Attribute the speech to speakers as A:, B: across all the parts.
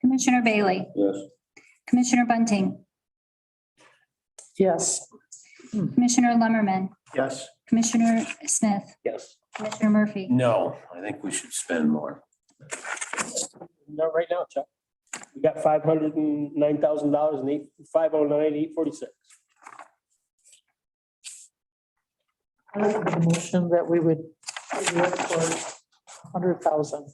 A: Commissioner Bailey,
B: Yes.
A: Commissioner Bunting,
C: Yes.
A: Commissioner Lumberman,
B: Yes.
A: Commissioner Smith,
B: Yes.
A: Commissioner Murphy.
B: No, I think we should spend more.
D: Not right now, Chuck. We got five hundred and nine thousand dollars and eight, five oh nine, eight forty-six.
C: I would make a motion that we would look for hundred thousand.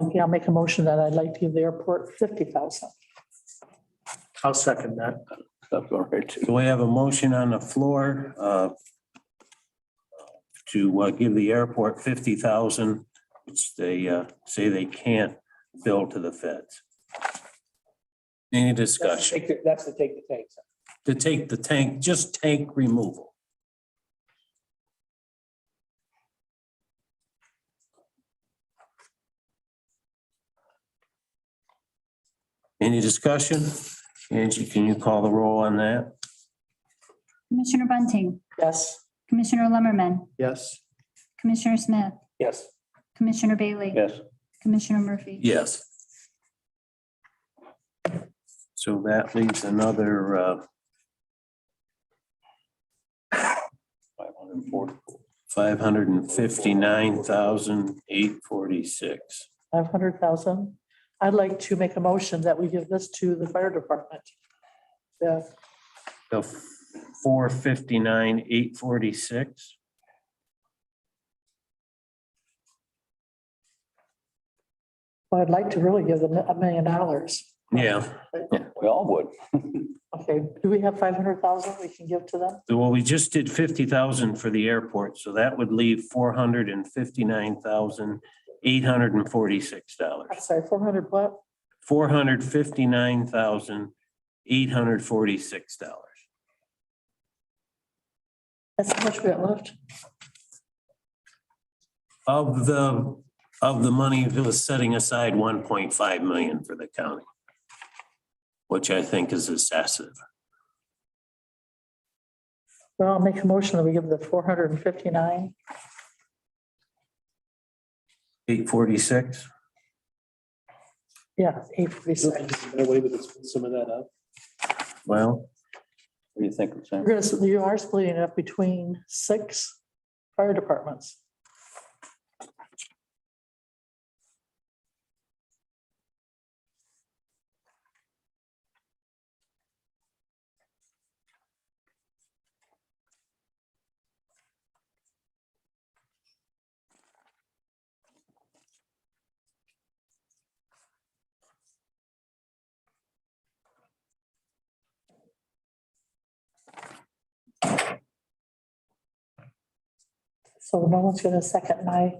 C: Okay, I'll make a motion that I'd like to give the airport fifty thousand.
D: I'll second that.
B: That's all right. So we have a motion on the floor uh, to uh, give the airport fifty thousand, which they uh, say they can't bill to the feds. Any
D: That's to
B: discussion
D: take the- that's to take the tanks. out.
B: to take the tank, just tank removal? Any discussion? Angie, can you call the roll on that?
A: Commissioner Bunting,
C: Yes.
A: Commissioner Lumberman,
D: Yes.
A: Commissioner Smith,
D: Yes.
A: Commissioner Bailey,
B: Yes.
A: Commissioner Murphy.
B: Yes. So that leaves another, uh, five hundred and fifty-nine thousand, eight forty-six.
C: Five hundred thousand. I'd like to make a motion that we give this to the fire department. The
B: So four fifty-nine, eight forty-six.
C: Well, I'd like to really give them a million dollars.
B: Yeah,
E: We all would.
C: Okay, do we have five hundred thousand we can give to them?
B: well, we just did fifty thousand for the airport, so that would leave four hundred and fifty-nine thousand, eight hundred and forty-six dollars.
C: I'm sorry, four hundred what?
B: four hundred fifty-nine thousand, eight hundred forty-six dollars.
C: That's how much we got left.
B: Of the, of the money that was setting aside one point five million for the county. Which I think is excessive.
C: Well, I'll make a motion that we give the four hundred and fifty-nine,
B: Eight forty-six?
C: yeah, eight
D: Is
C: forty-six.
D: there a way we could split some of that up?
B: Well,
E: What do you think, Sam?
C: You're gonna, s- you are splitting it up between six fire departments. So no one's gonna second my,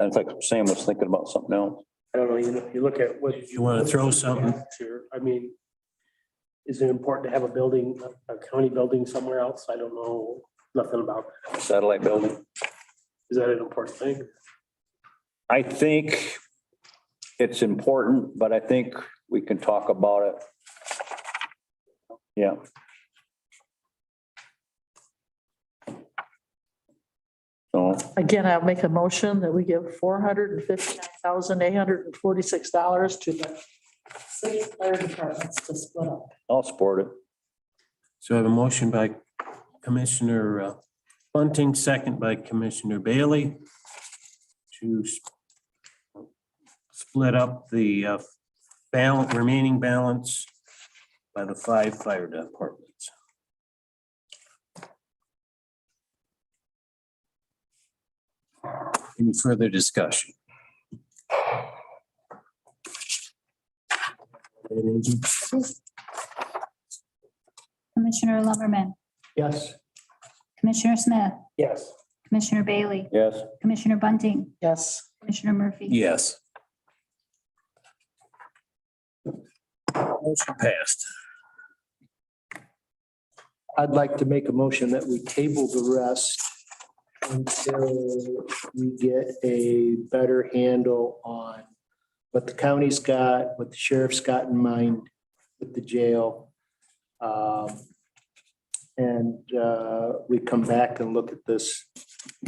E: I think Sam was thinking about something else.
D: I don't know, you know, you look at what.
B: If you wanna throw something.
D: Sure, I mean, is it important to have a building, a county building somewhere else? I don't know, nothing about, that.
E: Satellite building.
D: is that an important thing?
E: I think it's important, but I think we can talk about it. Yeah. So,
C: again, I'll make a motion that we give four hundred and fifty-nine thousand, eight hundred and forty-six dollars to the six fire departments to split up.
E: I'll support it.
B: so I have a motion by Commissioner uh, Bunting, second by Commissioner Bailey. To s- split up the uh, balance, remaining balance by the five fire departments. Any further discussion?
A: Commissioner Lumberman,
D: Yes.
A: Commissioner Smith,
D: Yes.
A: Commissioner Bailey,
E: Yes.
A: Commissioner Bunting,
C: Yes,
A: Commissioner Murphy.
B: Yes. Motion passed.
F: I'd like to make a motion that we table the rest until we get a better handle on what the county's got, what the sheriff's got in mind with the jail. Um, And uh, we come back and look at this